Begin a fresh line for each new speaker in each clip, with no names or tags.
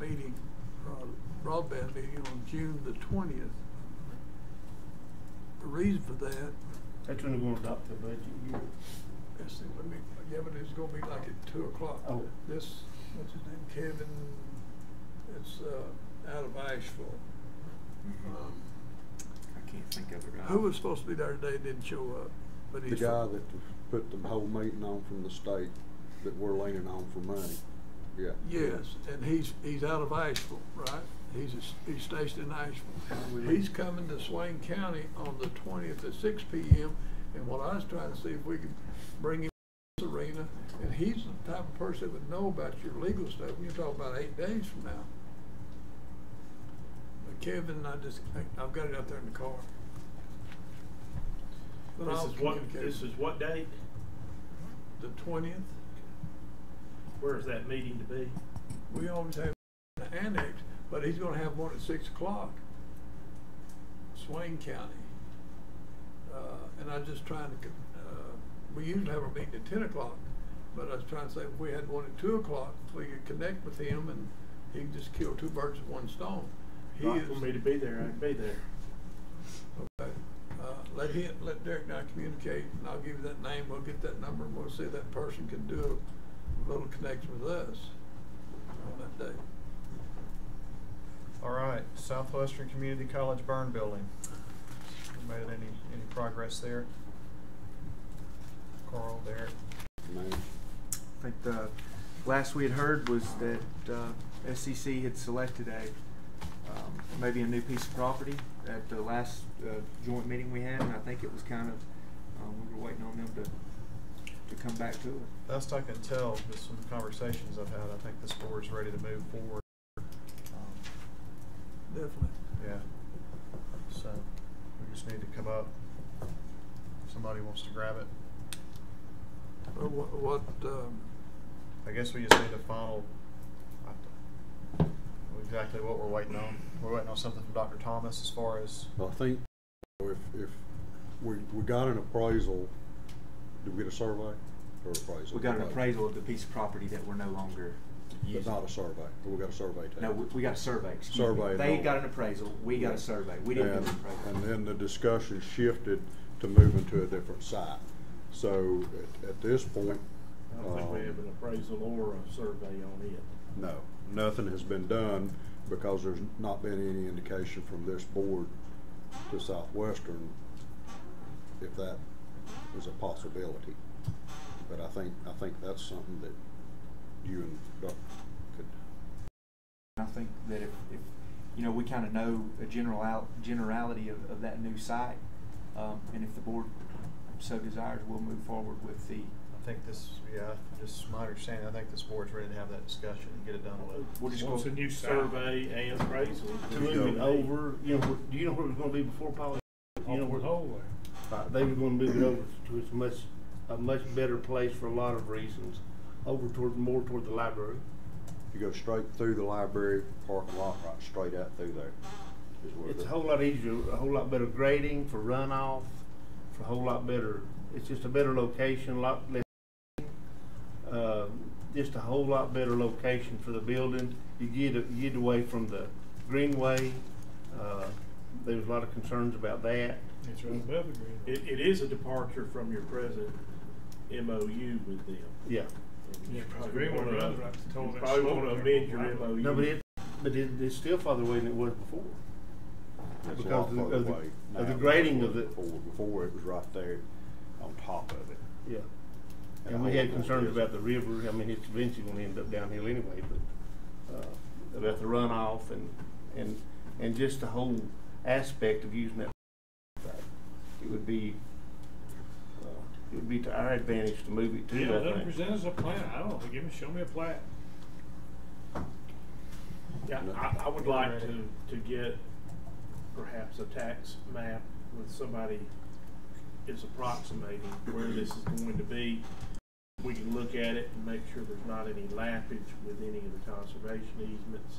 uh, broadband meeting on June the twentieth. The reason for that,
That's when we're gonna adopt the budget. You-
let's see, let me, yeah, but it's gonna be like at two o'clock.
Oh.
This, what's his name, Kevin, it's, uh, out of Asheville. Um,
I can't think of it right.
Who was supposed to be there today and didn't show up, but
The
he's.
guy that put the whole meeting on from the state that we're leaning on for money, yeah.
Yes, and he's, he's out of Asheville, right? He's, a s- he's stationed in
Oh,
Asheville.
really?
He's coming to Swain County on the twentieth at six P M. And what I was trying to see if we could bring him to this arena, and he's the type of person that would know about your legal stuff. You're talking about eight days from now. But Kevin, I just, I- I've got it out there in the car. But
This
I'll
is what,
communicate.
this is what date?
The twentieth.
Where is that meeting to be?
We always have an annex, but he's gonna have one at six o'clock. Swain County. Uh, and I was just trying to, co- uh, we usually have a meeting at ten o'clock, but I was trying to say, if we had one at two o'clock, we could connect with him and he could just kill two birds with one stone. He
Not
is.
For me to be there, I'd be there.
Okay, uh, let him, let Derek and I communicate, and I'll give you that name, we'll get that number, and we'll see if that person can do a little connection with us on that day.
All right, Southwestern Community College burn building. We Made any, any progress there? Carl, Derek?
Man,
I think the last we had heard was that uh, SCC had selected a um, maybe a new piece of property at the last uh, joint meeting we had, and I think it was kind of um, we were waiting on them to to come back to it.
Best I can tell, just from the conversations I've had, I think this board's ready to move forward. Um,
Definitely.
Yeah. So, we just need to come up. If Somebody wants to grab it.
Well, What, what, um,
I guess we just need to final, I- exactly what we're waiting on. We're waiting on something from Dr. Thomas as far as,
I think if, if we, we got an appraisal, did we get a survey or appraisal?
We got an appraisal of the piece of property that we're no longer
But
using.
not a survey, but we got a survey taken.
no, we, we got a survey. excuse me.
Survey,
They
no.
got an appraisal. We got a survey. We didn't
and,
do an appraisal.
and then the discussion shifted to moving to a different site. So at, at this point,
I don't think we
um,
have an appraisal or a survey on it.
No, nothing has been done because there's not been any indication from this board to Southwestern if that is a possibility. But I think, I think that's something that you and Doc could,
I think that if, if you know, we kind of know a general out, generality of, of that new site, um, and if the board so desires, we'll move forward with the.
I think this, yeah, just my understanding, I think this board's ready to have that discussion and get it done with.
We're just
Once a
going.
new survey and appraisal is
There you go.
moving over, you know, do you know where it was gonna be before Polly? You know where? Uh, They were gonna move it over to a much, a much better place for a lot of reasons, over toward, more toward the library.
you go straight through the library parking lot, right straight out through there. is where
It's a
the-
whole lot easier, a whole lot better grading for runoff, for a whole lot better, it's just a better location, a lot less. Uh, just a whole lot better location for the building, you get, you get away from the greenway, uh, there was a lot of concerns about that.
It's right above the green.
It, it is a departure from your present MOU with them.
Yeah,
You
Agree
probably
with
wanna,
Rutherford.
you
Told that
probably
slope
wanna
there.
amend your MOU.
no, but it, but it, it's still farther away than it was before.
It's a
because
lot
of the-
further
of the-
away
of the
now than
grading of
it was
it.
Before, before it was right there on top of it.
Yeah.
a
And we
whole
had
lot
concerns
different.
about the river, I mean, it's eventually gonna end up downhill anyway, but, uh, about the runoff and, and, and just the whole aspect of using that. site. It would be, uh, it would be to our advantage to move it
Yeah, let
to
them
that thing.
present us a plan, I don't know, give me, show me a plat. Yeah, I, I would like to, to get perhaps a tax map with somebody is approximating where this is going to be. We can look at it and make sure there's not any lappage with any of the conservation easements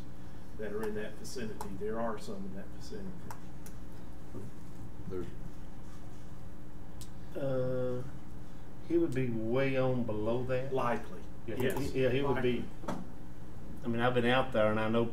that are in that vicinity, there are some in that vicinity.
There's,
Uh, he would be way on below that.
Likely,
Yeah,
yes.
he- Yeah, he would be,
likely.
I mean, I've been out there and I know